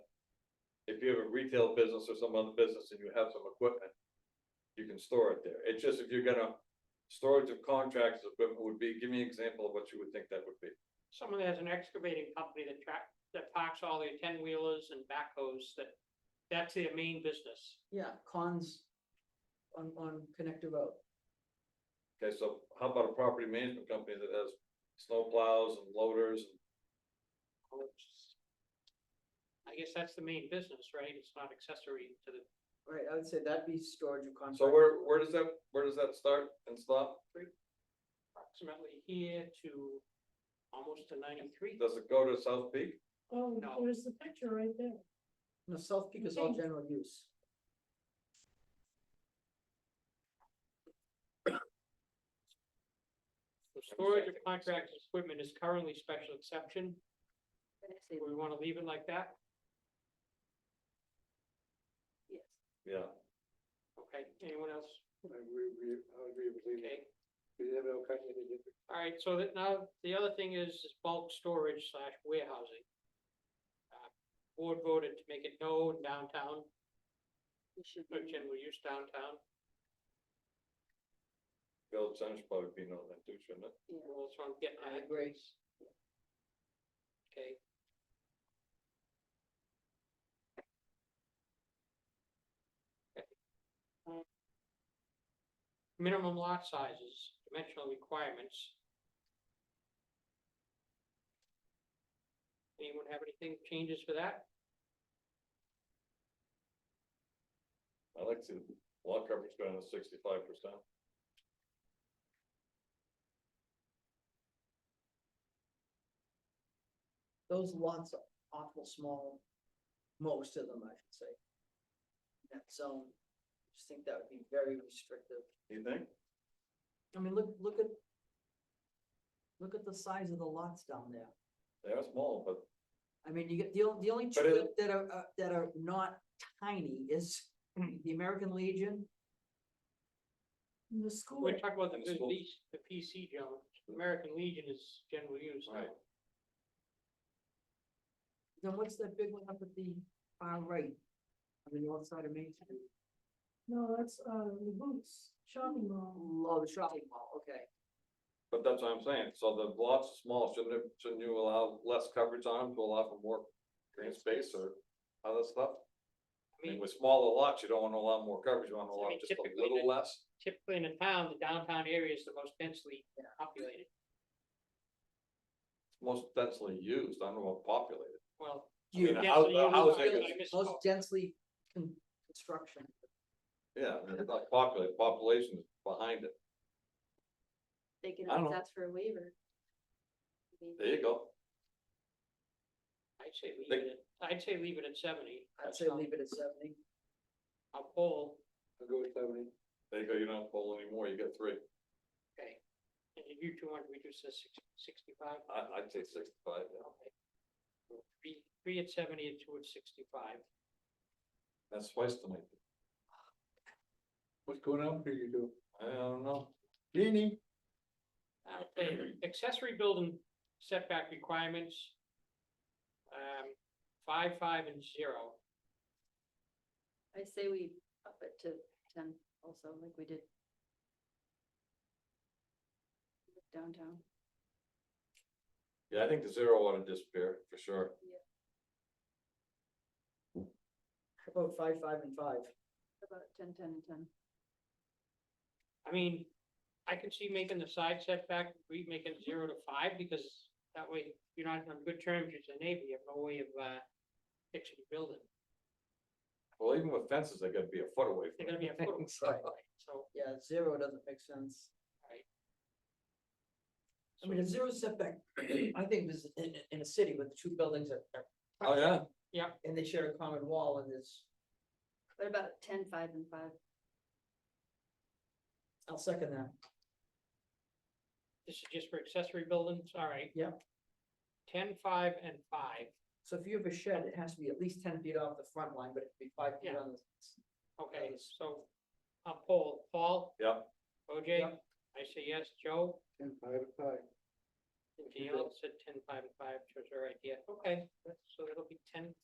if you have a retail business or some other business and you have some equipment, you can store it there. It's just if you're gonna, storage of contracts equipment would be, give me an example of what you would think that would be. Someone that has an excavating company that track, that parks all their ten wheelers and backhoes, that, that's their main business. yeah, cons on, on Connector Road. Okay, so how about a property management company that has snow plows and loaders? I guess that's the main business, right? It's not accessory to the, Right, I would say that'd be storage of contract. So where, where does that, where does that start and stop? approximately here to almost to ninety-three. Does it go to South Peak? Oh, No. there's the picture right there. No, South Peak is all Okay. general use. The storage of contract equipment is currently special exception. Do we wanna leave it like that? Yeah. Okay, anyone else? I agree with you, I agree with you. Okay, We have no kind of different- all right, so that now, the other thing is is bulk storage slash warehousing. Uh, Board voted to make it no downtown, but general use downtown, Village Center's probably be known that too, shouldn't it? well, that's what I'm getting I at, agree. okay? Okay. Um, Minimum lot sizes, dimensional requirements. Anyone have anything changes for that? I like to, see the lot coverage going to sixty-five percent. Those lots are awful small, most of them, I should say. That zone, I just think that would be very restrictive. You think? I mean, look, look at. Look at the size of the lots down there. They are small, but I mean, you get, the only, the only two But it- that are, uh, that are not tiny is the American Legion. The school. We're talking about the And the schools. PC, the PC, Joe, American Legion is general use. now. Right. Then what's that big one up at the far right? On the north side of Main Street? No, that's, uh, the boots, shopping mall. Oh, the shopping mall, okay. But that's what I'm saying, so the lots are small, shouldn't it, shouldn't you allow less coverage on them to allow for more green space or other stuff? I I mean, mean, with smaller lots, you don't wanna allow more coverage, you wanna I allow mean, just a typically the- little less. typically in a town, the downtown area is the most densely populated, Most densely used, I don't know what populated. well. I mean, densely a house- a used, house I- is- I misspoke. Most densely con- construction. Yeah, I mean, it's not populated, population is behind it, They can I don't know. always ask for a waiver. I mean, there you go. I'd say leave it, at- I'd say leave it at seventy. I'd say leave it at seventy. I'll poll, I'll go with seventy. There you go, you don't have to poll anymore, you got three, okay, and if you two want to reduce this sixty-five, I, I'd say sixty-five, yeah. okay. Three, three at seventy and two at sixty-five, that's twice the length. What's going on here, you do? I don't know, Jeannie? Okay, Uh, accessory building setback requirements. Um, five, five and zero. I say we up it to ten also, like we did. Downtown, yeah, I think the zero ought to disappear, for sure. How About five, five and five. about ten, ten and ten. I mean, I can see making the side setback, we make it zero to five, because that way you're not on good terms with the neighbor, you have no way of, uh, fixing the building. Well, even with fences, they gotta be a foot away They're from it. gonna be a foot away, Right. so, Yeah, zero doesn't make sense. right, I mean, a zero setback, I think is in, in a city with two buildings that, are- Oh, yeah, and they share a common wall and it's, What about ten, five and five? I'll second that. this is just for accessory buildings, all right. Yep. Ten, five, and five, So if you have a shed, it has to be at least ten feet off the front line, but it could be five feet Yeah. on the. okay, Yes. so, I'll poll, Paul? Yep. OJ, Yep. I say yes, Joe? Ten, five, five. Anything else at ten, five, and five, chose our idea, okay, that's- so that'll be ten,